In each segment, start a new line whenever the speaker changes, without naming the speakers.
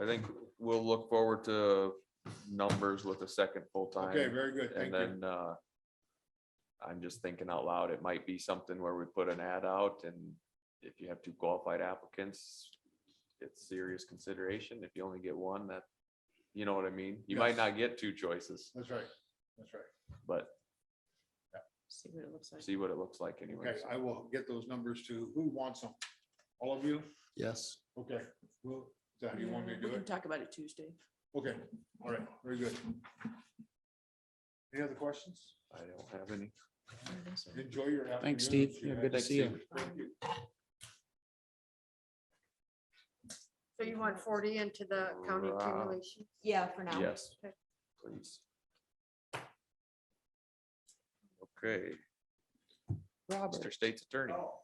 I think we'll look forward to numbers with a second full-time.
Okay, very good.
And
Thank you.
then, uh, I'm just thinking out loud, it might be something where we put an ad out and if you have two qualified applicants, it's serious consideration. If you only get one, that, you know what I mean? You might
Yes.
not get two choices,
That's right. That's right.
but
See what it looks like.
see what it looks like anyway.
Okay, I will get those numbers to, who wants them? All of you?
Yes.
Okay, well, Zach, you want me to
We
do
can
it?
Talk about it Tuesday.
Okay, all right, very good. Any other questions?
I don't have any.
Enjoy your afternoon.
Thanks, Steve.
if you
Yeah,
have-
good to
Thanks,
see you.
Steve.
Thank you.
So you want forty into the county
Right.
accumulation?
Yeah, for now.
Yes,
Okay.
please. Okay,
Robert.
Mr. State's Attorney.
Oh.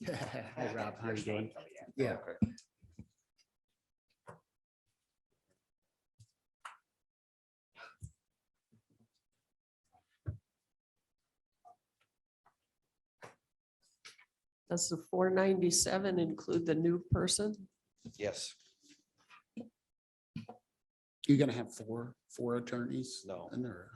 Hey, Rob, how you doing? Yeah.
Okay.
Does the four ninety-seven include the new person?
Yes,
You're gonna have four, four attorneys
no,
and they're,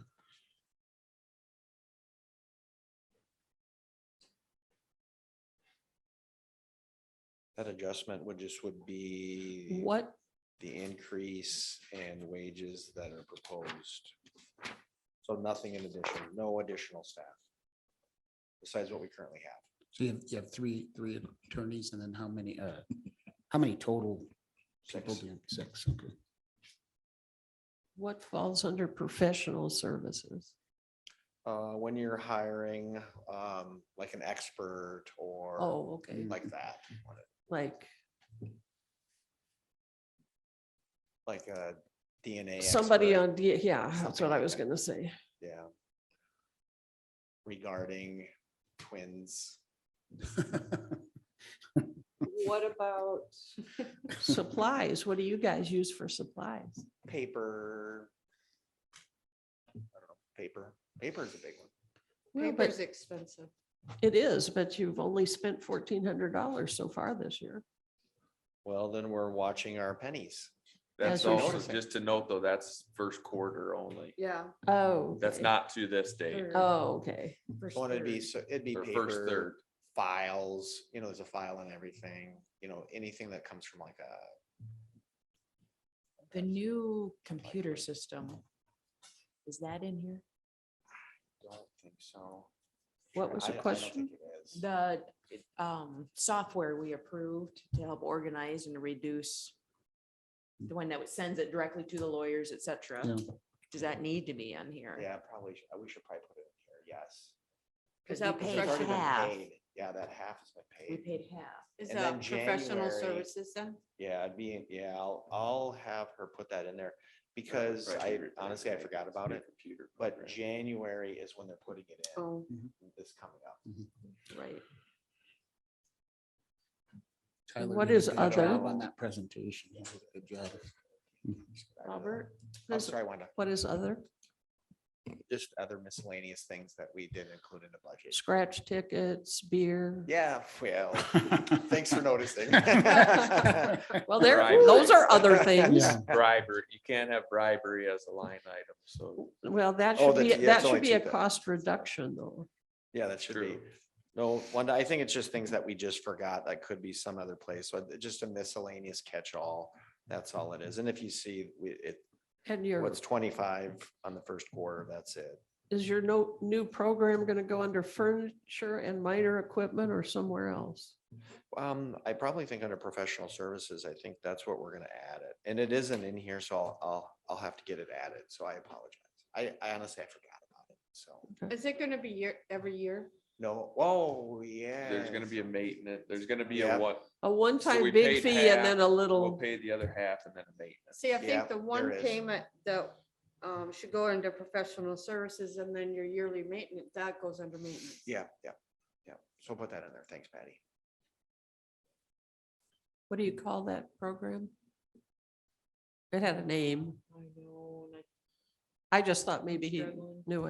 that adjustment would just would be
What,
the increase and wages that are proposed. So nothing in addition, no additional staff. Besides what we currently have.
so you have, you have three, three attorneys and then how many, uh, how many total? people
Six.
do you- Six, okay.
what falls under professional services?
Uh, when you're hiring, um, like an expert or
Oh, okay,
like that,
like
like a DNA.
somebody
expert,
on, D- yeah, that's
Something
what I
like
was
that.
gonna say.
Yeah. Regarding twins.
What about? Supplies, what do you guys use for supplies?
paper. I don't know, paper, paper is a big one.
Well,
Paper's
but-
expensive.
It is, but you've only spent fourteen hundred dollars so far this year.
Well, then we're watching our pennies.
That's
That's what-
also, just to note though, that's first quarter only.
Yeah.
Oh.
That's
okay.
not to this day,
third,
Oh, okay.
first
So it'd be,
third.
so it'd be
or first third.
paper, files, you know, there's a file in everything, you know, anything that comes from like a,
The new computer system. Is that in here?
don't think so.
What was
I-
the
I don't
question?
think it is.
The um software we approved to help organize and reduce. The one that sends it directly to the lawyers, et cetera.
Yeah.
Does that need to be on here?
Yeah, probably, sh- we should probably put it in here, yes.
Cause
Is that
we
Because
paid
it's already been
half.
paid. Yeah, that half has
We
been paid.
paid half.
Is
and
that
then
professional
January-
services then?
Yeah, I'd be, yeah, I'll, I'll have her put that in there because I honestly, I forgot about it. But January is when they're putting it in,
Oh,
this coming up.
Right.
Tyler
What
did a
is
good
other?
job On that presentation. He did a Good job.
I really-
Robert,
I'm
Does-
sorry, Wanda,
what is other?
just other miscellaneous things that we didn't include in the budget.
Scratch tickets, beer?
Yeah, well, thanks for noticing.
Well, there,
Right.
those are other things.
Yeah.
Bribery, you can't have bribery as a line item, so
Well, that
Oh,
should be,
that's- yeah,
that
it's only
should be a
2,000.
cost reduction though.
Yeah, that should be.
true.
No, Wanda, I think it's just things that we just forgot that could be some other place. So it- just a miscellaneous catch-all. That's all it is. And if you see we- it,
And your,
what's twenty-five on the first quarter, that's it.
is your no, new program going to go under furniture and minor equipment or somewhere else?
Um, I probably think under professional services, I think that's what we're gonna add it. And it isn't in here, so I'll, I'll, I'll have to get it added. So I apologize. I, I honestly, I forgot about it. So.
is it gonna be year, every year?
No, oh, yeah.
there's gonna be a maintenance, there's gonna be a
Yeah.
what,
A one-time
we
big
paid
fee and
half,
then a
we'll
little,
pay the other half and then a maintenance.
See,
Yeah,
I think the one
there is.
payment that um should go under professional services and then your yearly maintenance, that goes under maintenance.
Yeah, yeah, yeah. So put that in there. Thanks, Patty.
what do you call that program? It had a name.
I know, and I
I just thought maybe he
Struggling.
knew it.